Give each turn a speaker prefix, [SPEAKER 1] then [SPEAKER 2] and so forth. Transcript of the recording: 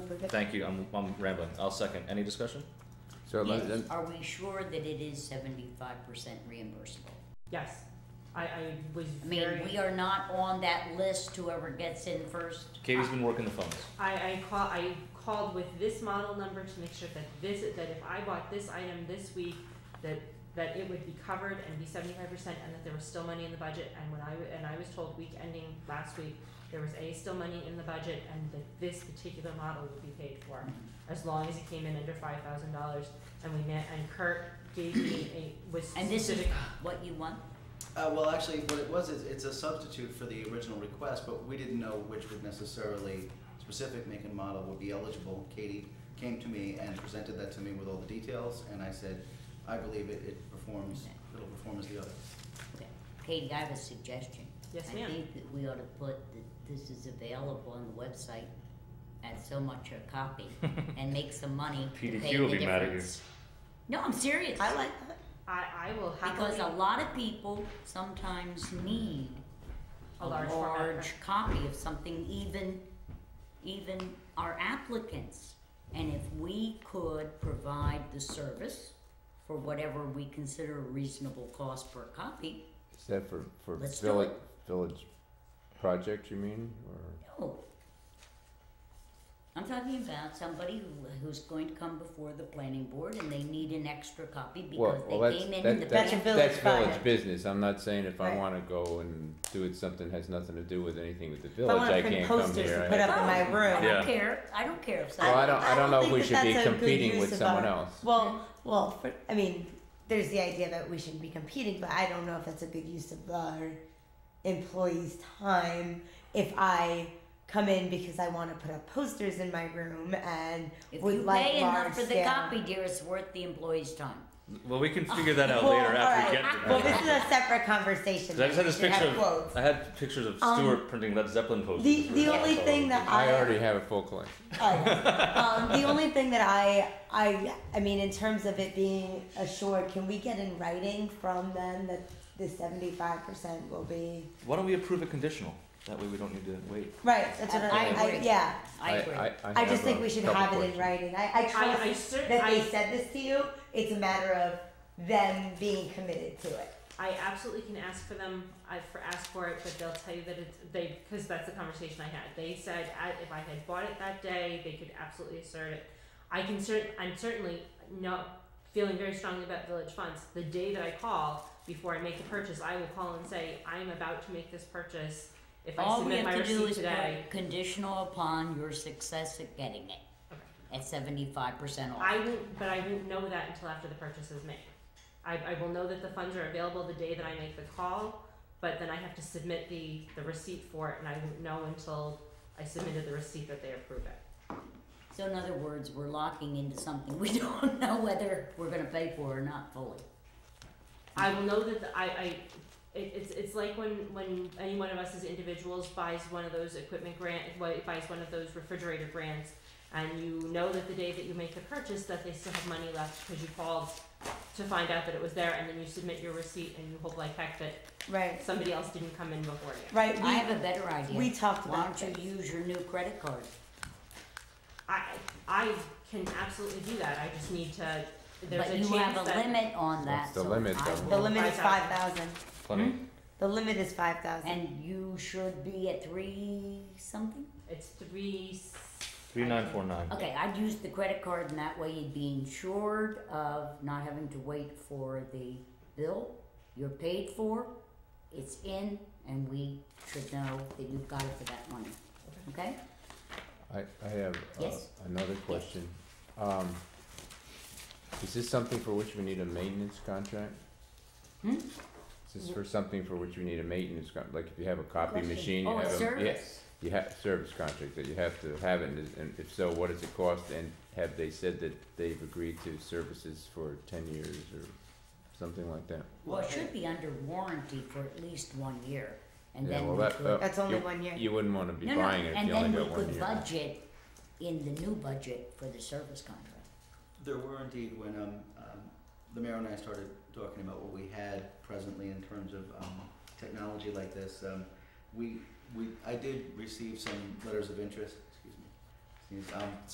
[SPEAKER 1] delivered it.
[SPEAKER 2] Thank you, I'm, I'm rambling. I'll second. Any discussion?
[SPEAKER 3] So let, let,
[SPEAKER 4] Are we sure that it is seventy-five percent reimbursable?
[SPEAKER 1] Yes, I, I was
[SPEAKER 4] I mean,
[SPEAKER 1] very.
[SPEAKER 4] we are not on that list, whoever gets in first.
[SPEAKER 2] Katie's been working the phones.
[SPEAKER 1] I, I call, I called with this model number to make sure that this, that if I bought this item this week, that, that it would be covered and be seventy-five percent, and that there was still money in the budget, and when I, wa- and I was told week ending last week, there was A, still money in the budget, and that this particular model would be paid for, as long as it came in under five thousand dollars, and we met, and Kurt gave me a, was
[SPEAKER 4] And this is
[SPEAKER 1] specific,
[SPEAKER 4] what you want?
[SPEAKER 5] Uh, well, actually, what it was is it's a substitute for the original request, but we didn't know which would necessarily specific make and model would be eligible. Katie came to me and presented that to me with all the details, and I said, I believe it, it performs, it'll perform as the other.
[SPEAKER 4] Okay. Katie, I have a suggestion.
[SPEAKER 1] Yes,
[SPEAKER 4] I
[SPEAKER 1] ma'am.
[SPEAKER 4] think that we ought to put that this is available on the website at so much a copy and make some money to
[SPEAKER 2] PDQ
[SPEAKER 4] pay
[SPEAKER 2] will
[SPEAKER 4] the
[SPEAKER 2] be mad at you.
[SPEAKER 4] difference. No, I'm serious.
[SPEAKER 1] I like I, I will happily,
[SPEAKER 4] Because a lot of people sometimes need
[SPEAKER 1] A large format
[SPEAKER 4] large copy of something, even, even our applicants. And if we could provide the service for whatever we consider a reasonable cost per copy,
[SPEAKER 3] is that for, for
[SPEAKER 4] Let's do
[SPEAKER 3] village, village project, you mean, or?
[SPEAKER 4] no. oh. I'm talking about somebody who, who's going to come before the planning board and they need an extra copy
[SPEAKER 3] Well,
[SPEAKER 4] because
[SPEAKER 3] well,
[SPEAKER 4] they
[SPEAKER 3] that's-
[SPEAKER 4] came in
[SPEAKER 3] that-
[SPEAKER 4] in the
[SPEAKER 3] that's-
[SPEAKER 6] That's a
[SPEAKER 4] back.
[SPEAKER 6] village
[SPEAKER 3] That's village
[SPEAKER 6] project.
[SPEAKER 3] business, I'm not saying if I
[SPEAKER 6] Right.
[SPEAKER 3] wanna go and do it, something has nothing to do with anything with the
[SPEAKER 6] If I
[SPEAKER 3] village,
[SPEAKER 6] wanna
[SPEAKER 3] I
[SPEAKER 6] print
[SPEAKER 3] can't come
[SPEAKER 6] posters
[SPEAKER 3] here.
[SPEAKER 6] and
[SPEAKER 3] I
[SPEAKER 6] put
[SPEAKER 3] have
[SPEAKER 6] up in my
[SPEAKER 4] I
[SPEAKER 6] room.
[SPEAKER 2] Yeah.
[SPEAKER 4] don't care, I don't care if
[SPEAKER 3] Well, I
[SPEAKER 4] somebody,
[SPEAKER 3] don't, I don't know if
[SPEAKER 6] think
[SPEAKER 3] we
[SPEAKER 6] that
[SPEAKER 3] should be
[SPEAKER 6] that's a good
[SPEAKER 3] competing with
[SPEAKER 6] use of
[SPEAKER 3] someone
[SPEAKER 6] our-
[SPEAKER 3] else.
[SPEAKER 6] Well, well, for, I mean, there's the idea that we shouldn't be competing, but I don't know if that's a good use of our employees' time if I come in because I want to put up posters in my room and
[SPEAKER 4] if
[SPEAKER 6] would
[SPEAKER 4] you
[SPEAKER 6] like
[SPEAKER 4] pay
[SPEAKER 6] large
[SPEAKER 4] enough for the
[SPEAKER 6] scale-
[SPEAKER 4] copy, dear, it's worth the employee's time.
[SPEAKER 2] Well, we can figure that out
[SPEAKER 6] Well,
[SPEAKER 2] later after we
[SPEAKER 6] alright.
[SPEAKER 2] get
[SPEAKER 6] Well,
[SPEAKER 2] there.
[SPEAKER 6] this is a separate conversation.
[SPEAKER 2] 'Cause I just had
[SPEAKER 6] We
[SPEAKER 2] this
[SPEAKER 6] should
[SPEAKER 2] picture
[SPEAKER 6] have
[SPEAKER 2] of,
[SPEAKER 6] quotes.
[SPEAKER 2] I had pictures of
[SPEAKER 6] Um,
[SPEAKER 2] Stuart printing Led Zeppelin posters.
[SPEAKER 6] the-
[SPEAKER 2] for
[SPEAKER 6] the
[SPEAKER 2] his house
[SPEAKER 6] only
[SPEAKER 2] all
[SPEAKER 6] thing
[SPEAKER 2] over
[SPEAKER 6] that
[SPEAKER 2] the-
[SPEAKER 6] I-
[SPEAKER 3] I already have a full collection.
[SPEAKER 6] Oh, yeah. um, the only thing that I, I, I mean, in terms of it being assured, can we get in writing from them that the seventy-five percent will be
[SPEAKER 2] Why don't we approve it conditional? That way we don't need to wait.
[SPEAKER 6] right? That's what I,
[SPEAKER 4] I
[SPEAKER 6] I,
[SPEAKER 4] agree.
[SPEAKER 6] yeah.
[SPEAKER 4] I agree.
[SPEAKER 6] I
[SPEAKER 3] have
[SPEAKER 6] just think
[SPEAKER 3] a
[SPEAKER 6] we should
[SPEAKER 3] couple
[SPEAKER 6] have it in
[SPEAKER 3] questions.
[SPEAKER 6] writing. I, I
[SPEAKER 1] I,
[SPEAKER 6] trust
[SPEAKER 1] I cer-
[SPEAKER 6] that
[SPEAKER 1] I
[SPEAKER 6] they said this to you. It's a matter of them being committed to it.
[SPEAKER 1] I absolutely can ask for them. I for ask for it, but they'll tell you that it's they because that's the conversation I had. They said I- if I had bought it that day, they could absolutely assert it. I can cert. I'm certainly not feeling very strongly about village funds. The day that I call before I make the purchase, I will call and say I'm about to make this purchase. If I
[SPEAKER 4] All we
[SPEAKER 1] submit
[SPEAKER 4] have
[SPEAKER 1] my
[SPEAKER 4] to do
[SPEAKER 1] receipt
[SPEAKER 4] is
[SPEAKER 1] today,
[SPEAKER 4] put conditional upon your success at getting it at seventy-five percent off.
[SPEAKER 1] I won't. But I won't know that until after the purchase is made. I, I will know that the funds are available the day that I make the call, but then I have to submit the, the receipt for it, and I won't know until I submitted the receipt that they approve it.
[SPEAKER 4] So in other words, we're locking into something we don't know whether we're gonna pay for or not fully.
[SPEAKER 1] I will know that the, I, I, it, it's, it's like when, when any one of us as individuals buys one of those equipment grant, wa- buys one of those refrigerator grants, and you know that the day that you make the purchase, that they still have money left, because you called to find out that it was there, and then you submit your receipt, and you hope like heck that
[SPEAKER 6] Right.
[SPEAKER 1] somebody else didn't come in before you.
[SPEAKER 6] Right.
[SPEAKER 4] I have a better idea.
[SPEAKER 6] we talked
[SPEAKER 4] Why
[SPEAKER 6] about
[SPEAKER 4] don't you use your new credit card?
[SPEAKER 1] I I can absolutely do that. I just need to. There's
[SPEAKER 4] But
[SPEAKER 1] a
[SPEAKER 4] you
[SPEAKER 1] chance
[SPEAKER 4] have a
[SPEAKER 1] that
[SPEAKER 4] limit on that.
[SPEAKER 3] What's the
[SPEAKER 4] so
[SPEAKER 3] limit,
[SPEAKER 4] I
[SPEAKER 3] though?
[SPEAKER 6] the
[SPEAKER 4] will-
[SPEAKER 6] limit is five
[SPEAKER 1] 5,000.
[SPEAKER 6] thousand.
[SPEAKER 2] Plenty.
[SPEAKER 6] The limit is five thousand.
[SPEAKER 4] And you should be at three something?
[SPEAKER 1] it's three. s-
[SPEAKER 2] Three nine four nine.
[SPEAKER 4] Okay, I'd use the credit card and that way you'd be insured of not having to wait for the bill. You're paid for, it's in, and we should know that you've got it for that money, okay?
[SPEAKER 3] I, I have uh,
[SPEAKER 4] Yes.
[SPEAKER 3] another question. Um, Is this something for which we need a maintenance contract?
[SPEAKER 4] Hmm?
[SPEAKER 3] Is this for something for which we need a maintenance con, like if you have a copy
[SPEAKER 4] Question.
[SPEAKER 3] machine, you
[SPEAKER 4] Oh, a
[SPEAKER 3] have a, yeah,
[SPEAKER 4] service.
[SPEAKER 3] you have service contract that you have to have it, and is- and if so, what does it cost? And have they said that they've agreed to services for ten years or something like that?
[SPEAKER 4] Well, it should be under warranty for at least one year, and
[SPEAKER 3] Yeah,
[SPEAKER 4] then
[SPEAKER 3] well,
[SPEAKER 4] we
[SPEAKER 3] that-
[SPEAKER 4] could.
[SPEAKER 3] that-
[SPEAKER 6] That's only
[SPEAKER 3] you-
[SPEAKER 6] one year.
[SPEAKER 3] You wouldn't wanna be
[SPEAKER 4] No, no,
[SPEAKER 3] buying it if you only got
[SPEAKER 4] And then
[SPEAKER 3] one
[SPEAKER 4] we could
[SPEAKER 3] year.
[SPEAKER 4] budget in the new budget for the service contract.
[SPEAKER 5] There were indeed when um, um, the mayor and I started talking about what we had presently in terms of um, technology like this. Um, we we I did receive some letters of interest. Excuse me. Excuse- Um,